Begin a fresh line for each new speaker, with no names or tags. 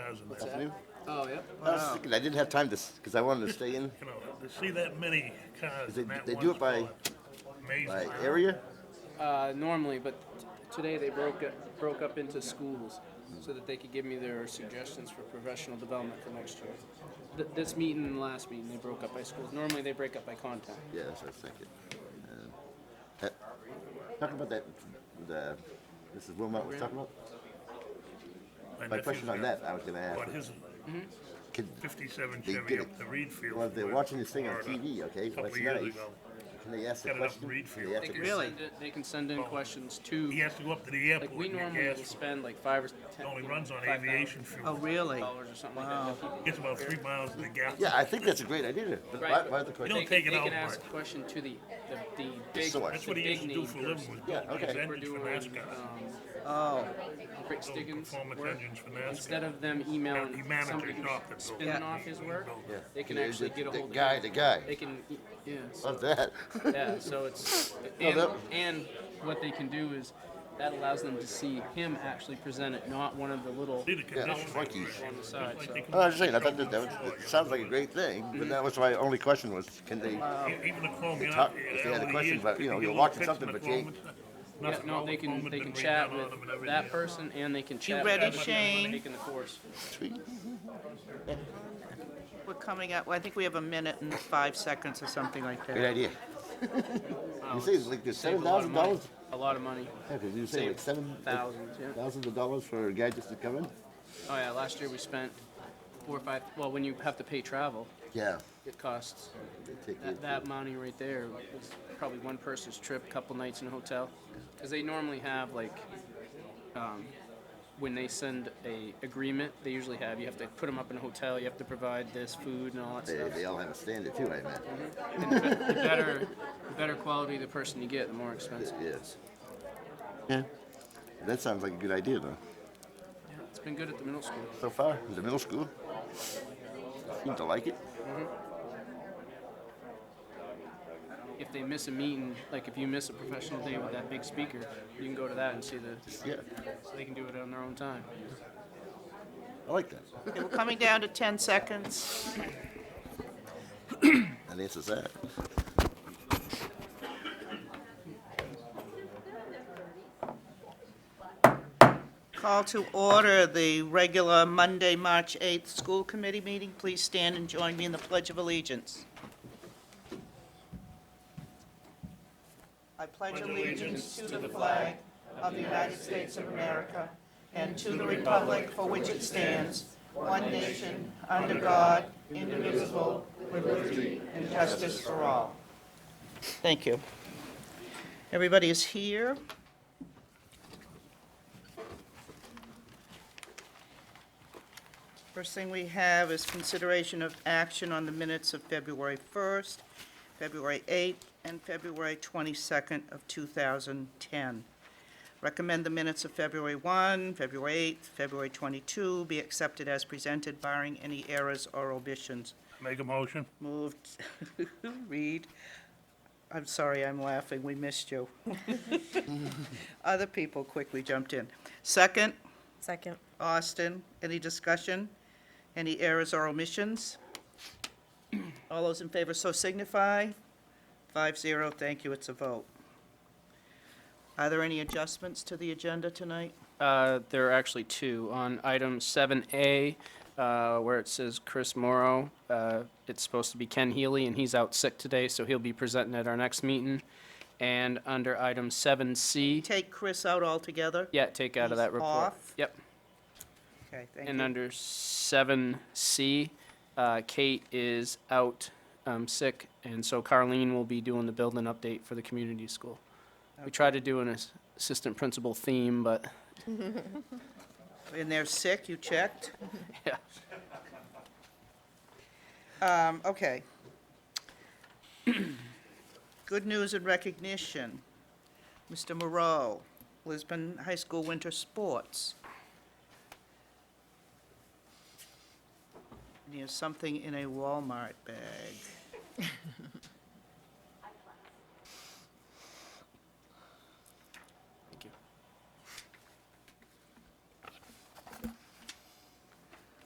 cars in there.
Oh, yep.
I was thinking, I didn't have time to, because I wanted to stay in.
You know, to see that many cars
They,
in that
they
one
do it by,
spot, amazing.
by area?
Uh, normally, but t- today they broke it, broke up into schools so that they could give me their suggestions for professional development for next year. Th- this meeting and the last meeting, they broke up by schools. Normally, they break up by content.
Yeah, that's what I was thinking. Um, that- Talking about that, the, Mrs. Wilmot was talking about,
My
my
nephew's
question on
got-
that, I was gonna ask,
But his
can,
fifty-seven
They
Chevy
did
up
it.
the reed field.
well, they're
where-
watching this thing on
Florida,
TV, okay,
Couple
that's
of years
nice.
ago.
Can they ask the
Got it up
question?
Reed
They
Field.
ask
They
the
can
question?
send in, they can send in questions
He
to,
has to go up to the
like,
airport
we
and get
normally will
gas. for it.
spend like five or
It
ten.
Only
you know,
runes on
$5,000
aviation
Oh,
fuel.
really?
Dollars or something like that. They'll keep-
Gets about three miles in the gap.
Yeah, I think that's a great idea, but
Right,
why,
but
why the
they
question?
don't
can-
take it
They
out
can ask
much.
a question to the, the, the big,
source.
That's what
the
he used
big
to do
name
for a living
person.
was
Yeah,
build these
okay.
We're
engines for
doing,
NASCAR.
um,
Oh,
Rick
Those
Stiggins
performance
work.
engines for NASCAR.
Instead of them
He
emailing
managed
somebody
it
who's
off the building.
spinning off his work,
Yeah.
they can
The-
actually
the-
get a
the
hold of
guy,
him.
the guy.
They can, e- yeah, so,
Love that.
yeah, so it's, and,
Oh, that-
and what they can do is, that allows them to see him actually present it, not one of the little
See the condition.
monkeys.
on the side, so.
I was just saying, I thought that, that was, it sounds like a great thing, but that was my only question was, can they,
Even the Chrome, you know.
talk- if they had a question about, you know, you're watching something, but you ain't-
Yeah, no, they can, they can chat with that person and they can chat with
ready,
that person
Shane?
taking the course.
Sweet.
we're coming up, well, I think we have a minute and five seconds or something like
Great
that.
idea.
Wow,
You
it's
say it's like there's
saved
seven
a lot of
thousand
money,
dollars?
a lot of money.
Yeah, 'cause you say like
Saved
seven
thousands, yeah.
thousands of dollars for a guy just to come in?
Oh yeah, last year we spent four or five, well, when you have to pay travel,
Yeah.
it costs,
They take
that,
it.
that money right there is probably one person's trip, couple nights in a hotel. Cause they normally have like, um, when they send a agreement, they usually have, you have to put them up in a hotel, you have to provide this, food and all that
They,
stuff.
they all have a standard too, I imagine.
The better, the better quality the person you get, the more expensive.
Yes. Yeah. That sounds like a good idea though.
It's been good at the middle school.
So far, the middle school seem to like it.
If they miss a meeting, like if you miss a professional day with that big speaker, you can go to that and see the,
Yeah,
so they can do it on their own time.
I like that.
Okay, We're coming down to ten seconds.
That answers that.
Call to order the regular Monday, March 8th school committee meeting. Please stand and join me in the Pledge of Allegiance. I pledge allegiance to the flag of the United States of America and to the republic for which it stands, one nation, under God, indivisible, with liberty and justice for all. Thank you. Everybody is here. First thing we have is consideration of action on the minutes of February 1st, February 8th, and February 22nd of 2010. Recommend the minutes of February 1, February 8th, February 22 be accepted as presented barring any errors or omissions.
Make a motion.
Moved, Reed. I'm sorry, I'm laughing, we missed you. Other people quickly jumped in. Second?
Second.
Austin, any discussion? Any errors or omissions? All those in favor so signify. Five zero, thank you, it's a vote. Are there any adjustments to the agenda tonight?
Uh, There are actually two. On item 7A, uh, where it says Chris Morrow, uh, it's supposed to be Ken Healy, and he's out sick today, so he'll be presenting at our next meeting. And under item 7C,
Take Chris out altogether?
yeah, take out of
He's
that report.
off.
Yep.
Okay, thank
And
you.
under 7C, uh, Kate is out um, sick, and so Carleen will be doing the building update for the community school. We tried to do an ass- assistant principal theme, but
And they're sick, you checked?
Yeah.
Um, okay. Good news and recognition. Mr. Moreau, Lisbon High School Winter Sports. And He has something in a Walmart bag.